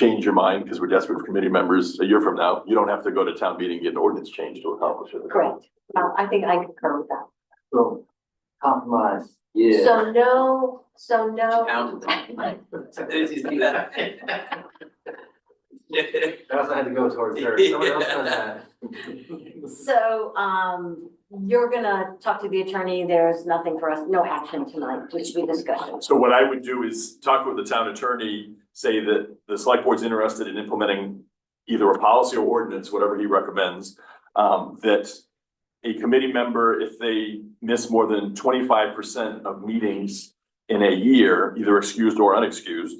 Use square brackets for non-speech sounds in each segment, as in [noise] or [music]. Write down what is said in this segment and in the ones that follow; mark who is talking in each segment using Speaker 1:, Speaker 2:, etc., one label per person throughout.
Speaker 1: change your mind because we're desperate for committee members a year from now, you don't have to go to town meeting and get an ordinance change to accomplish it.
Speaker 2: Correct. Uh, I think I concur with that.
Speaker 3: So compromise.
Speaker 2: So no, so [laughs] no.
Speaker 4: Pound Did you see that?
Speaker 3: I also had to go towards her, someone else done that.
Speaker 2: So, um, you're gonna talk to the attorney, there's nothing for us, no action tonight, just be discussion.
Speaker 1: So what I would do is talk with the town attorney, say that the select board's interested in implementing either a policy or ordinance, whatever he recommends, um, that a committee member, if they miss more than twenty-five percent of meetings in a year, either excused or unexcused,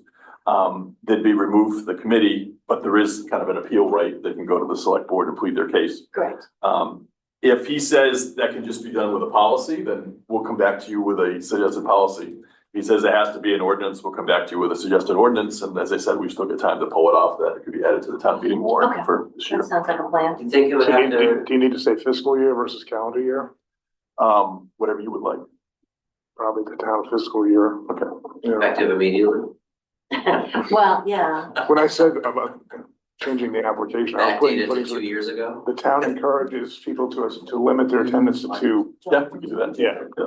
Speaker 1: um, they'd be removed from the committee, but there is kind of an appeal right. They can go to the select board and plead their case.
Speaker 2: Correct.
Speaker 1: Um, if he says that can just be done with a policy, then we'll come back to you with a suggested policy. He says it has to be an ordinance, we'll come back to you with a suggested ordinance, and as I said, we've still got time to pull it off, that it could be added to the town meeting
Speaker 2: Okay.
Speaker 1: warrant for this year.
Speaker 2: That sounds like a plan.
Speaker 4: [laughs] You think it would
Speaker 5: So do you-
Speaker 4: have
Speaker 5: do you,
Speaker 4: to,
Speaker 5: do you need to say fiscal year versus calendar year?
Speaker 1: Um, whatever you would like.
Speaker 5: Probably the town fiscal year. Okay.
Speaker 4: effective immediately?
Speaker 2: Well, yeah,
Speaker 5: When I said about changing the application, I'm putting,
Speaker 4: Backdated to two
Speaker 5: putting,
Speaker 4: years ago?
Speaker 5: the town encourages people to, us to limit their attendance to two.
Speaker 1: Yeah, we can do that.
Speaker 5: Yeah.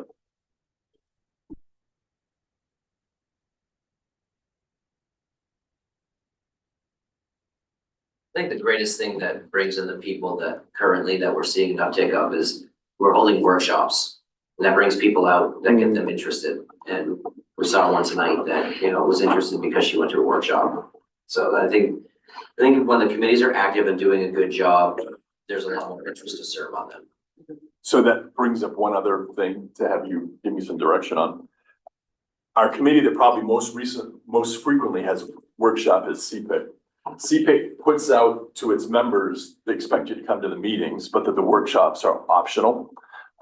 Speaker 4: I think the greatest thing that brings in the people that currently that we're seeing an uptick of is we're holding workshops. And that brings people out that get them interested. And we saw one tonight that, you know, was interested because she went to a workshop. So I think, I think when the committees are active and doing a good job, there's a lot more interest to serve on them.
Speaker 1: So that brings up one other thing to have you give me some direction on. Our committee that probably most recent, most frequently has workshop is CPIC. CPIC puts out to its members, they expect you to come to the meetings, but that the workshops are optional.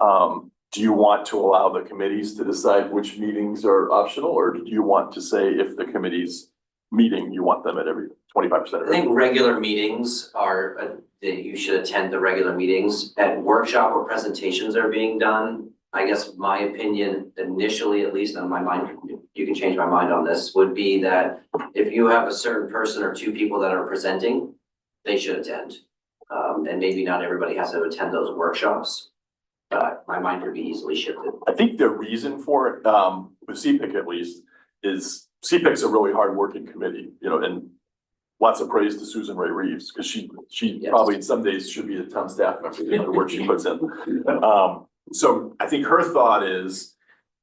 Speaker 1: Um, do you want to allow the committees to decide which meetings are optional, or do you want to say if the committee's meeting, you want them at every twenty-five percent
Speaker 4: I
Speaker 1: of every?
Speaker 4: think regular meetings are, uh, that you should attend the regular meetings. At workshop or presentations are being done, I guess my opinion initially, at least on my mind, you can change my mind on this, would be that if you have a certain person or two people that are presenting, they should attend. Um, and maybe not everybody has to attend those workshops, but my mind could be easily shifted.
Speaker 1: I think the reason for it, um, with CPIC at least, is CPIC's a really hard-working committee, you know, and lots of praise to Susan Ray Reeves, because she, she
Speaker 4: Yes.
Speaker 1: probably in some days should be a town staff member, you know, the work she puts in. Um, so I think her thought is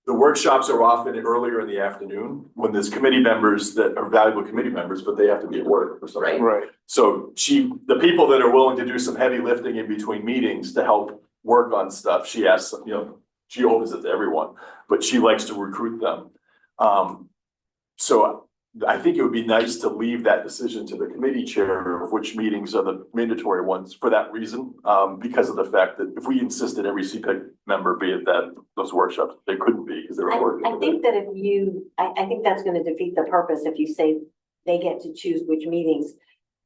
Speaker 1: the workshops are often earlier in the afternoon when there's committee members that are valuable committee members, but they have to be at work or something.
Speaker 4: Right.
Speaker 5: Right.
Speaker 1: So she, the people that are willing to do some heavy lifting in between meetings to help work on stuff, she asks, you know, she opens it to everyone, but she likes to recruit them. Um, so I think it would be nice to leave that decision to the committee chair of which meetings are the mandatory ones for that reason. Um, because of the fact that if we insisted every CPEC member be at that, those workshops, they couldn't be because they
Speaker 2: I,
Speaker 1: were working.
Speaker 2: I think that if you, I, I think that's gonna defeat the purpose if you say they get to choose which meetings.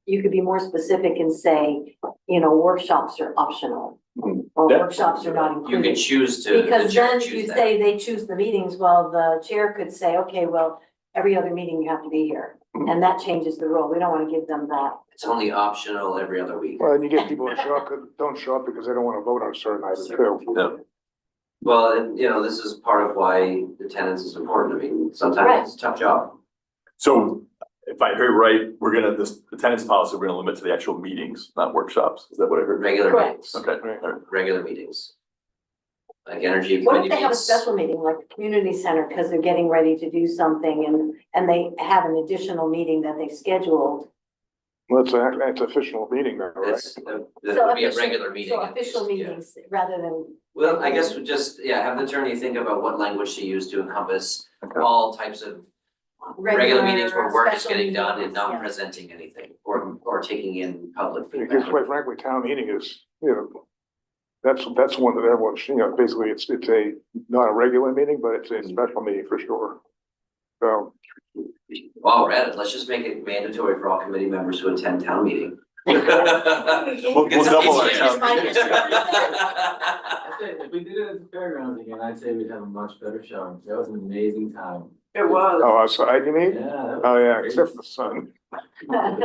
Speaker 2: You could be more specific and say, you know, workshops are optional,
Speaker 1: Mhm.
Speaker 2: or
Speaker 1: Yeah.
Speaker 2: workshops are not
Speaker 4: Hmm. You can
Speaker 2: included.
Speaker 4: choose to, the
Speaker 2: Because
Speaker 4: chair
Speaker 2: then
Speaker 4: choose
Speaker 2: you
Speaker 4: that.
Speaker 2: say they choose the meetings, well, the chair could say, okay, well, every other meeting you have to be here. And that changes the rule. We don't wanna give them that.
Speaker 4: It's only optional every other week.
Speaker 5: Well, and you get people that show up, that don't show up because they don't want to vote on certain items too.
Speaker 1: Yeah.
Speaker 4: Well, and you know, this is part of why attendance is important. I mean,
Speaker 2: Right.
Speaker 4: sometimes it's a tough job.
Speaker 1: So if I heard right, we're gonna, this attendance policy, we're gonna limit to the actual meetings, not workshops. Is that what I heard?
Speaker 4: Regular
Speaker 2: Correct.
Speaker 4: meetings,
Speaker 1: Okay,
Speaker 5: Right.
Speaker 1: all right.
Speaker 4: regular meetings. Like energy
Speaker 2: What
Speaker 4: committee
Speaker 2: if they have a
Speaker 4: meetings.
Speaker 2: special meeting, like the community center, because they're getting ready to do something and, and they have an additional meeting that they scheduled?
Speaker 5: Well, that's a, that's a official meeting though, right?
Speaker 4: That's, that that would be a
Speaker 2: official-
Speaker 4: regular meeting.
Speaker 2: So
Speaker 4: at
Speaker 2: official
Speaker 4: least, yeah.
Speaker 2: meetings rather than,
Speaker 4: Well, I guess we just, yeah, have the attorney think about what language to use to encompass
Speaker 1: Okay.
Speaker 4: all types of regular meetings where work is
Speaker 2: Regular,
Speaker 4: getting done and
Speaker 2: special
Speaker 4: not
Speaker 2: meetings,
Speaker 4: presenting anything or, or taking in public
Speaker 5: Because
Speaker 4: feedback.
Speaker 5: quite frankly, town meeting is, you know, that's, that's one that everyone, should- you know, basically it's, it's a, not a regular meeting, but it's a
Speaker 4: Mm.
Speaker 5: special meeting for sure. So,
Speaker 4: While we're at it, let's just make it mandatory for all committee members who attend town [laughs] meeting. [laughs] It's
Speaker 1: We'll, we'll double our
Speaker 4: easier.
Speaker 1: town
Speaker 2: Fine.
Speaker 1: meeting.
Speaker 4: [laughs]
Speaker 3: I say, if we did it at the fairgrounds again, I'd say we'd have a much better showing, that was an amazing time. It was.
Speaker 5: Oh, outside, you mean?
Speaker 3: Yeah.
Speaker 2: [laughs]
Speaker 4: [laughs]
Speaker 5: Oh, yeah, except for the sun.